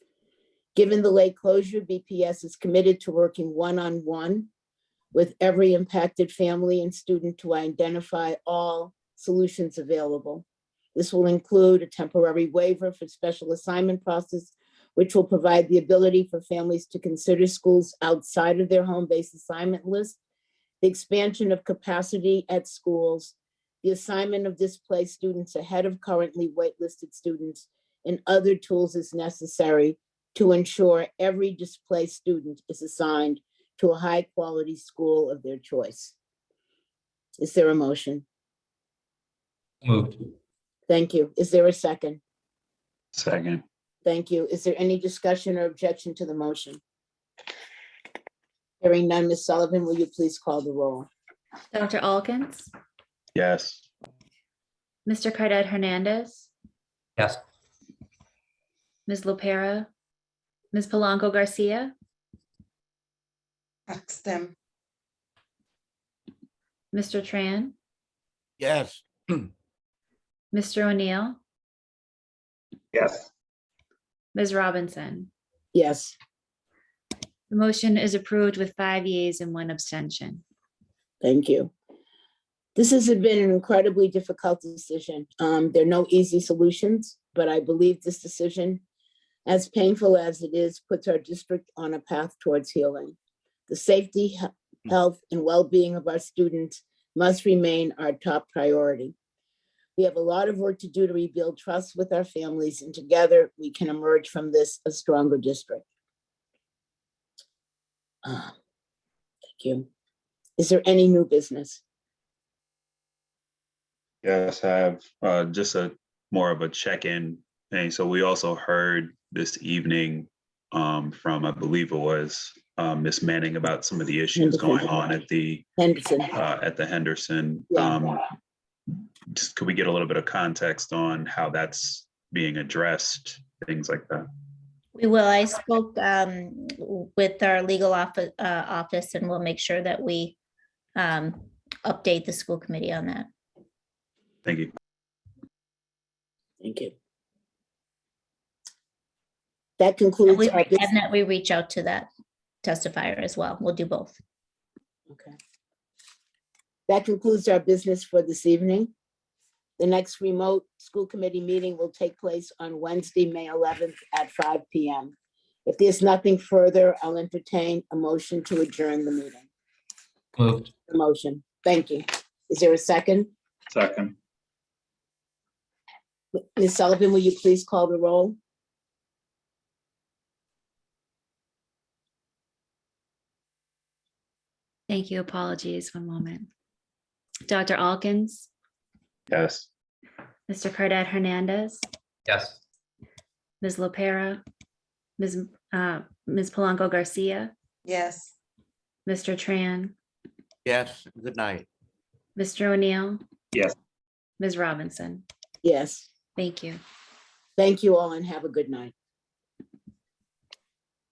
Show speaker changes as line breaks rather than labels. Given the late closure, BPS is committed to working one-on-one with every impacted family and student to identify all solutions available. This will include a temporary waiver for special assignment process, which will provide the ability for families to consider schools outside of their home-based assignment list, the expansion of capacity at schools, the assignment of displaced students ahead of currently waitlisted students, and other tools as necessary to ensure every displaced student is assigned to a high-quality school of their choice. Is there a motion?
Moved.
Thank you. Is there a second?
Second.
Thank you. Is there any discussion or objection to the motion? Hearing none, Ms. Sullivan, will you please call the roll?
Dr. Alkins,
Yes.
Mr. Cardad Hernandez,
Yes.
Ms. Lopera, Ms. Polanco Garcia,
Axton,
Mr. Tran,
yes,
Mr. O'Neill,
Yes.
Ms. Robinson.
Yes,
The motion is approved with five yeas and one abstention.
thank you. This has been an incredibly difficult decision. Um, there are no easy solutions, but I believe this decision, as painful as it is, puts our district on a path towards healing. The safety, he- health, and well-being of our students must remain our top priority. We have a lot of work to do to rebuild trust with our families, and together we can emerge from this a stronger district. Ah, Thank you. Is there any new business?
Yes, I have uh, just a more of a check-in thing. So we also heard this evening um, from, I believe it was uh, Miss Manning about some of the issues going on at the
Henderson?
uh, at the Henderson.
Yeah.
Um, just could we get a little bit of context on how that's being addressed, things like that?
We will. I spoke um, with our legal office, office and we'll make sure that we um, update the school committee on that.
Thank you.
Thank you. That
And
concludes
we-
our
and
business.
that we reach out to that testifier as well. We'll do both.
Okay. That concludes our business for this evening. The next remote school committee meeting will take place on Wednesday, May 11th at 5 PM. If there's nothing further, I'll entertain a motion to adjourn the meeting.
Moved.
A Motion. Thank you. Is there a second?
Second.
Ms. Sullivan, will you please call the roll?
Thank you. Apologies. One moment. Dr. Alkins,
Yes.
Mr. Cardad Hernandez,
Yes.
Ms. Lopera, Ms. uh, Ms. Polanco Garcia,
yes.
Mr. Tran,
yes, good night.
Mr. O'Neill.
Yes.
Ms. Robinson.
Yes.
Thank you.
Thank you all and have a good night.